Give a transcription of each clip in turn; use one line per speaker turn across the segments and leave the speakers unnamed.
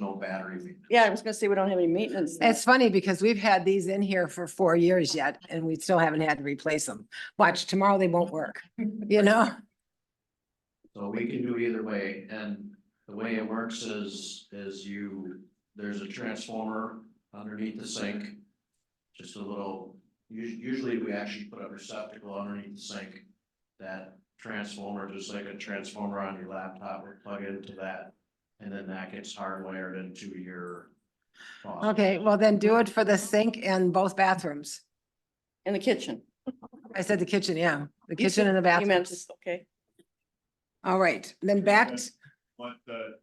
no battery. maintenance.
Yeah, I was gonna say, we don't have any maintenance. then.
It's funny because we've had these in here for four years yet and we still haven't had to replace them. Watch, tomorrow they won't work, you know?
So we can do either way, and the way it works is, is you, there's a transformer underneath the sink. Just a little, us- usually we actually put a receptacle underneath the sink. That transformer, just like a transformer on your laptop, we plug into that, and then that gets hardwired into your. faucet.
Okay, well then do it for the sink and both bathrooms.
In the kitchen.
I said the kitchen, yeah, the
You
kitchen
said-
and the
You
bathroom.
meant just, okay,
All right, then back, to
want the,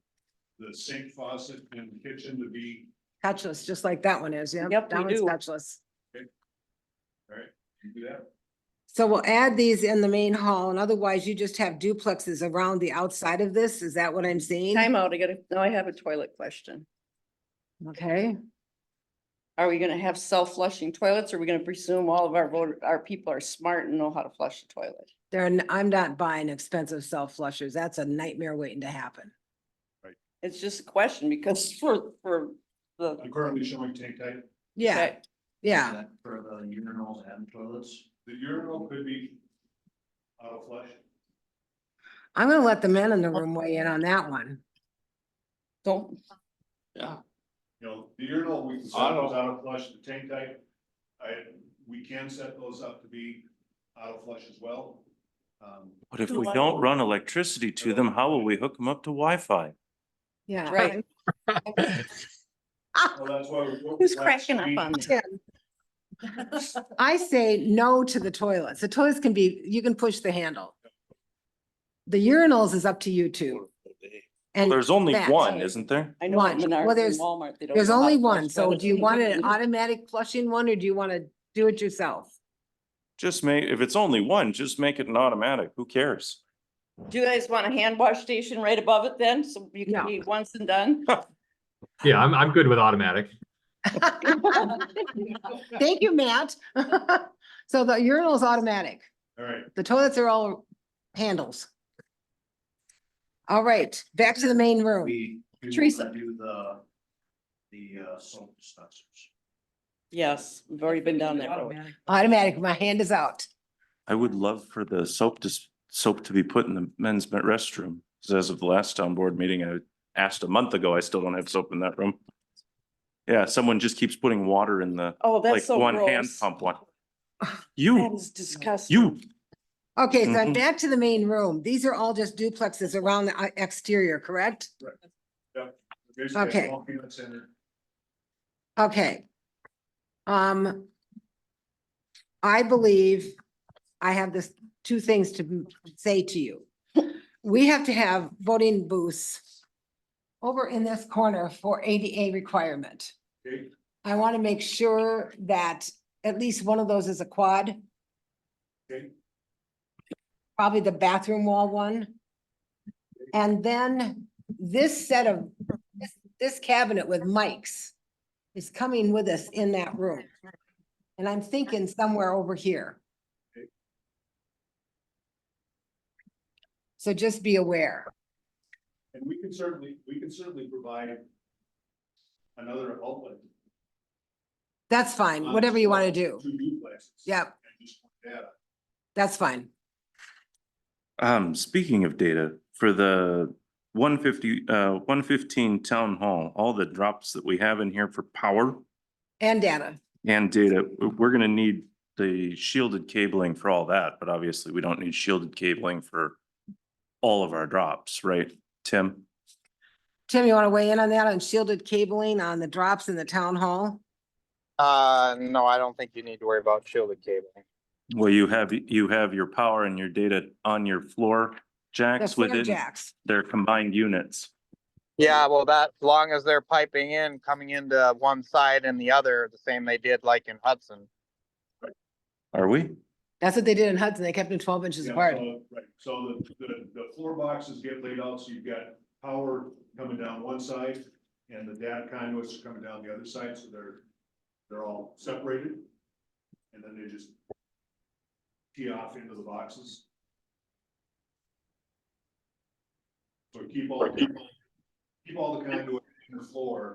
the sink faucet and the kitchen to be,
touchless, just like that one is, yeah.
Yep,
That
we
one's
do.
touchless.
you do that?
So we'll add these in the main hall and otherwise you just have duplexes around the outside of this. Is that what I'm seeing?
time out, I gotta, now I have a toilet question.
Okay,
Are we gonna have self-flushing toilets? or Are we gonna presume all of our voter, our people are smart and know how to flush a toilet?
there, n- I'm not buying expensive self flushers. That's a nightmare waiting to happen.
It's just a question because for, for the.
I'm currently showing tank type,
Yeah, yeah.
That For the urinals and toilets.
the urinal could be auto flush.
I'm gonna let the men in the room weigh in on that one.
Don't,
You know, the urinal, we can set those auto flush, the tank type, I, we can set those up to be auto flush as well. Um,
But if
The
we
what?
don't run electricity to them, how will we hook them up to Wi-Fi?
Yeah.
Right.
well, that's why. we're-
who's cracking up on
Yeah.
that?
I say no to the toilets. The toilets can be, you can push the handle. The urinals is up to you two. And
There's only
that.
one, isn't there?
I know at
One.
Menards
Well,
and
there's-
Walmart, they don't
there's
know how to
only
flush
one, so
toilets.
do you want an automatic flushing one or do you want to do it yourself?
Just make, if it's only one, just make it an automatic. Who cares?
Do you guys want a hand wash station right above it then? So you
No.
can be once and done?
Yeah, I'm, I'm good with automatic.
Thank you, Matt. So the urinal is automatic.
All right,
The toilets are all handles. All right, back to the main room.
We. we wanna
Teresa.
Do the, the uh, soap dispensers.
Yes, we've already been down that road.
Automatic, my hand is out.
I would love for the soap to, soap to be put in the men's ma- restroom. Because as of the last town board meeting, I asked a month ago, I still don't have soap in that room. Yeah, someone just keeps putting water in the,
Oh,
like,
that's so
one hand
gross.
pump one.
That
You,
is disgusting.
you,
Okay, so I'm
Mhm.
back to the main room. These are all just duplexes around the uh, exterior, correct?
basically,
Okay.
it's all peanuts in it.
Okay. Um. I believe I have this, two things to m- say to you. We have to have voting booths over in this corner for ADA requirement.
okay?
I want to make sure that at least one of those is a quad.
Okay.
Probably the bathroom wall one. And then this set of, this- this cabinet with mics is coming with us in that room. And I'm thinking somewhere over here. So just be aware.
And we can certainly, we can certainly provide another outlet.
That's fine, whatever you want to do.
Two duplexes.
Yep,
And just put that up.
that's fine.
um, speaking of data, for the one fifty, uh, one fifteen town hall, all the drops that we have in here for power.
And Dana.
And data, w- we're gonna need the shielded cabling for all that, but obviously we don't need shielded cabling for all of our drops, right, Tim?
Tim, you want to weigh in on that on shielded cabling on the drops in the town hall?
Uh, no, I don't think you need to worry about shielded cabling.
Well, you have, you have your power and your data on your floor
The
jacks
flare
within
jacks.
their combined units.
Yeah, well, that, as long as they're piping in, coming into one side and the other, the same they did like in Hudson.
Are we?
That's what they did in Hudson. They kept them twelve inches
Yeah,
apart.
so- Right, so the, the, the floor boxes get laid out, so you've got power coming down one side and the data conduits are coming down the other side, so they're, they're all separated. And then they just tee off into the boxes. So keep all, keep all the conduit the floor